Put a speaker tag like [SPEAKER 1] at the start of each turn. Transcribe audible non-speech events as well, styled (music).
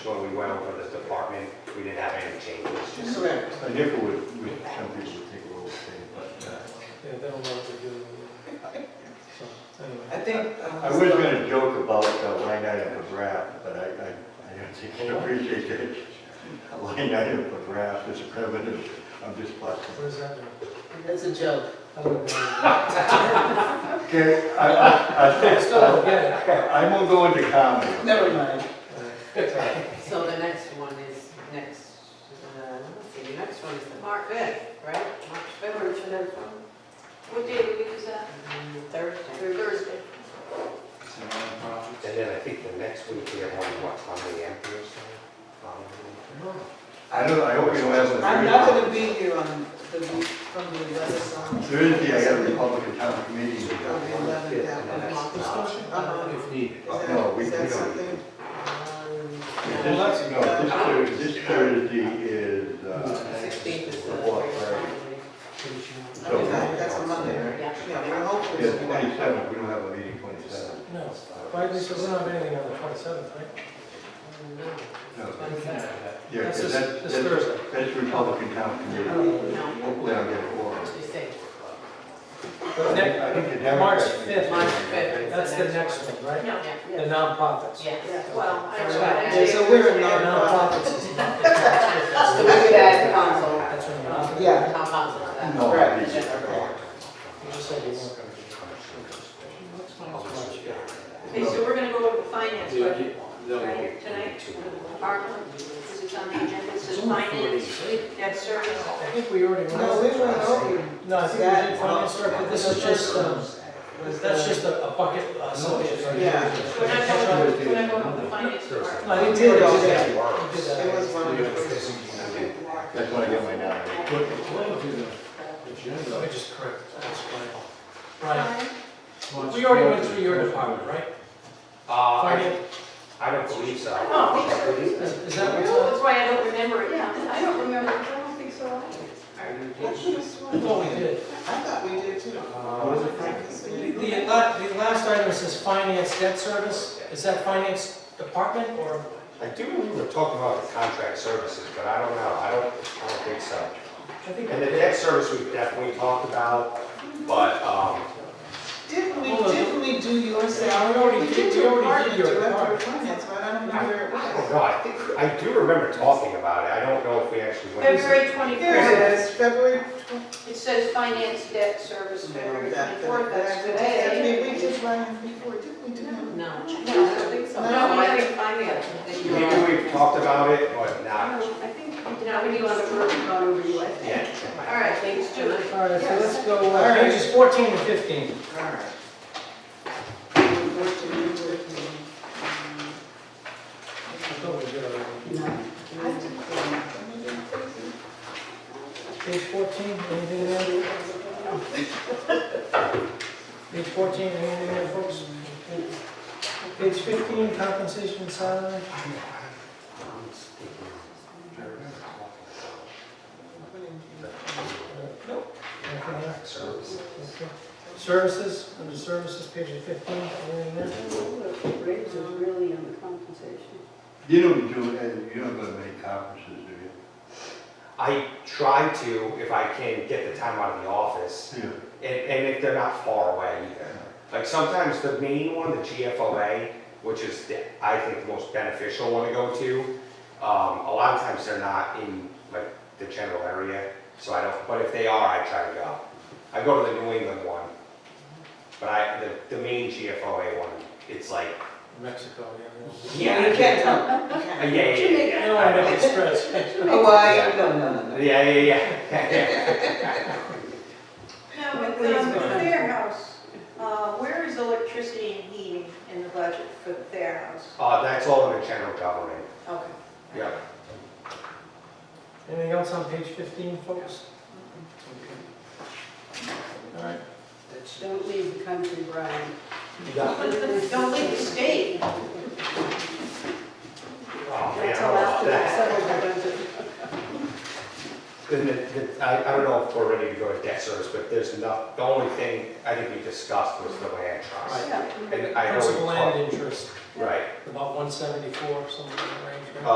[SPEAKER 1] when we went over this department, we didn't have any changes, just
[SPEAKER 2] Correct.
[SPEAKER 3] I guess we would, we, some people would take a little thing, but, uh,
[SPEAKER 4] Yeah, they don't know what to do. So, anyway,
[SPEAKER 2] I think. uh,
[SPEAKER 3] I was gonna joke about the line item of draft, but I, I, I don't think I appreciate that. A Line item of draft is a primitive, I'm just busting.
[SPEAKER 4] what does that mean?
[SPEAKER 2] That's a joke.
[SPEAKER 4] I don't know.
[SPEAKER 3] Okay, I, I, I think,
[SPEAKER 4] Let's go, Uh, yeah.
[SPEAKER 3] I won't go into comedy.
[SPEAKER 2] Never mind.
[SPEAKER 5] So the next one is next, uh, let's see, the next one is the March 5th, right? March 5th,
[SPEAKER 6] March fifth. What day of the week is that?
[SPEAKER 5] mm, Thursday.
[SPEAKER 6] Thursday.
[SPEAKER 1] And then I think the next week we have one, what, on the Emperor's Day? Um,
[SPEAKER 3] I don't, I hope you don't have a
[SPEAKER 2] I'm not gonna be here on the week from the eleventh on.
[SPEAKER 3] Thursday, I got a Republican town committee.
[SPEAKER 2] From the eleventh down.
[SPEAKER 4] If needed.
[SPEAKER 2] Is that-
[SPEAKER 3] Uh, No, we-
[SPEAKER 2] Is
[SPEAKER 3] we
[SPEAKER 2] that
[SPEAKER 3] don't.
[SPEAKER 2] something?
[SPEAKER 3] This,
[SPEAKER 5] Um,
[SPEAKER 3] no, this Thursday, this Thursday is, uh,
[SPEAKER 5] 16th is the
[SPEAKER 3] the what, right?
[SPEAKER 5] Thursday.
[SPEAKER 2] Okay, that's a Monday, right?
[SPEAKER 5] Yeah.
[SPEAKER 2] Yeah, we're hopeful.
[SPEAKER 3] Yeah, twenty-seventh, we don't have a meeting twenty-seventh.
[SPEAKER 4] No, why, because we don't have anything on the twenty-seventh, right?
[SPEAKER 5] Mm-hmm.
[SPEAKER 3] No.
[SPEAKER 5] Twenty-seventh.
[SPEAKER 3] Yeah,
[SPEAKER 4] That's
[SPEAKER 3] because
[SPEAKER 4] this-
[SPEAKER 3] that's,
[SPEAKER 4] this
[SPEAKER 3] that's,
[SPEAKER 4] Thursday.
[SPEAKER 3] that's Republican town committee. Hopefully I'll get a quorum.
[SPEAKER 5] What you say?
[SPEAKER 4] But next,
[SPEAKER 3] I think the
[SPEAKER 4] March
[SPEAKER 3] Democrats-
[SPEAKER 4] fifth.
[SPEAKER 5] March 5th.
[SPEAKER 4] that's the next one, right?
[SPEAKER 6] No.
[SPEAKER 4] The nonprofits.
[SPEAKER 5] Yes.
[SPEAKER 6] Well, I
[SPEAKER 4] Very
[SPEAKER 6] tried.
[SPEAKER 2] Yeah, so we're a nonprofit.
[SPEAKER 4] Nonprofits.
[SPEAKER 5] That's the way that council,
[SPEAKER 4] That's when you're-
[SPEAKER 5] um,
[SPEAKER 2] Yeah.
[SPEAKER 5] town council, that.
[SPEAKER 3] No, I
[SPEAKER 2] Right.
[SPEAKER 3] think it's-
[SPEAKER 4] You just said you weren't gonna
[SPEAKER 6] Okay, so we're gonna go over the finance budget, right, tonight, ARPA, because it's on the agenda, it says finance, debt service.
[SPEAKER 4] I think we already went.
[SPEAKER 2] No, we
[SPEAKER 4] over
[SPEAKER 2] went
[SPEAKER 4] that.
[SPEAKER 2] over.
[SPEAKER 4] No, I think we
[SPEAKER 2] that.
[SPEAKER 4] did finance director, but this is just, um,
[SPEAKER 2] Was
[SPEAKER 4] that's
[SPEAKER 2] the-
[SPEAKER 4] just a a bucket, uh, subject.
[SPEAKER 2] Yeah.
[SPEAKER 6] So we're not going, we're not going over the finance part.
[SPEAKER 4] No, you
[SPEAKER 2] We did
[SPEAKER 4] did,
[SPEAKER 2] all
[SPEAKER 4] you
[SPEAKER 2] that.
[SPEAKER 4] did. You did that.
[SPEAKER 2] It was one of the first.
[SPEAKER 3] That's when I get my nomination.
[SPEAKER 4] Let me just correct, that's fine. Right, we already went through your department, right?
[SPEAKER 1] Uh, I,
[SPEAKER 4] Finance.
[SPEAKER 1] I don't believe so.
[SPEAKER 4] Oh,
[SPEAKER 6] I don't think so.
[SPEAKER 1] believe
[SPEAKER 4] Is is that what's
[SPEAKER 6] That's why I don't remember it, yeah, I don't remember, it. I don't think so. either.
[SPEAKER 2] That's just
[SPEAKER 4] on? I thought
[SPEAKER 2] one.
[SPEAKER 4] we did.
[SPEAKER 2] I thought we did too.
[SPEAKER 3] Oh,
[SPEAKER 4] Uh, The, the la- the last item says finance debt service, is that finance department or?
[SPEAKER 1] I do remember talking about the contract services, but I don't know, I don't, I don't think so.
[SPEAKER 4] I think
[SPEAKER 1] And the debt service we've definitely talked about, but, um,
[SPEAKER 2] Didn't we,
[SPEAKER 4] Hold on.
[SPEAKER 2] didn't we do your salary?
[SPEAKER 4] already
[SPEAKER 2] We
[SPEAKER 4] did-
[SPEAKER 2] did
[SPEAKER 4] we
[SPEAKER 2] your department
[SPEAKER 4] already did your
[SPEAKER 2] director
[SPEAKER 4] part.
[SPEAKER 2] of finance, but I don't
[SPEAKER 1] I
[SPEAKER 2] know where it
[SPEAKER 1] I
[SPEAKER 2] was.
[SPEAKER 1] don't know, oh, I think, I do remember talking about it, I don't know if we actually went.
[SPEAKER 6] February
[SPEAKER 2] Here
[SPEAKER 6] twenty-fourth,
[SPEAKER 2] it is, February tw-
[SPEAKER 6] it says finance debt service, February
[SPEAKER 2] that-
[SPEAKER 6] twenty-fourth, that's
[SPEAKER 2] that- that-
[SPEAKER 6] today.
[SPEAKER 2] We did one before, didn't we do that?
[SPEAKER 5] No, no, I don't think so.
[SPEAKER 2] No,
[SPEAKER 5] No,
[SPEAKER 2] I
[SPEAKER 5] I think finance. that you're on.
[SPEAKER 1] Maybe we've talked about it, but
[SPEAKER 6] I
[SPEAKER 1] not,
[SPEAKER 6] think, now we do on the work, not over you, I think.
[SPEAKER 1] yeah.
[SPEAKER 6] All right, let's do it.
[SPEAKER 4] All right, so let's go,
[SPEAKER 2] All
[SPEAKER 4] uh,
[SPEAKER 2] right.
[SPEAKER 4] pages fourteen and fifteen.
[SPEAKER 2] Alright. I
[SPEAKER 4] I thought we did already. Page fourteen, anything there? Page fourteen, anything there, folks? Page fifteen, compensation and salary. Nope. Nothing there.
[SPEAKER 1] Service.
[SPEAKER 4] Okay. Services, under services, page fifteen, anything there?
[SPEAKER 2] Rates are
[SPEAKER 6] really on the compensation.
[SPEAKER 3] You don't do, uh, you don't go to many conferences, do
[SPEAKER 1] I try to, if I can, get the time out of the office,
[SPEAKER 3] you?
[SPEAKER 1] and, and if they're not far away either. Like sometimes the main one, the GFOA, which is, the- I think, the most beneficial one to go to, um, a lot of times they're not in, like, the general area, so I don't, but if they are, I try to go. I go to the New England one, but I, the, the main GFOA one, it's like,
[SPEAKER 4] Mexico, yeah.
[SPEAKER 1] yeah.
[SPEAKER 2] You can't tell.
[SPEAKER 1] Yeah, yeah, yeah, yeah.
[SPEAKER 4] No,
[SPEAKER 1] I
[SPEAKER 4] I
[SPEAKER 1] know.
[SPEAKER 4] don't express.
[SPEAKER 2] Hawaii, no, no, no, no.
[SPEAKER 1] Yeah, yeah, yeah. (laughs)
[SPEAKER 6] Now, with um, the Fair House, uh, where is electricity and heating in the budget for the Fair House?
[SPEAKER 1] Uh, that's all in the general government,
[SPEAKER 6] Okay.
[SPEAKER 1] yeah.
[SPEAKER 4] Anything else on page fifteen, folks? All right.
[SPEAKER 5] Don't leave the country, Brian.
[SPEAKER 6] Don't leave the state.
[SPEAKER 1] Oh, man, I
[SPEAKER 6] That's
[SPEAKER 1] don't know
[SPEAKER 6] all
[SPEAKER 1] about
[SPEAKER 6] after
[SPEAKER 1] that.
[SPEAKER 6] that.
[SPEAKER 1] Then the- the- I, I don't know if we're ready to go to debt service, but there's enough, the only thing I think we discussed was the land trust.
[SPEAKER 6] Yeah.
[SPEAKER 1] And I know we
[SPEAKER 4] Principal land
[SPEAKER 1] talked,
[SPEAKER 4] interest,
[SPEAKER 1] right,
[SPEAKER 4] about one seventy-four, something in the range, right?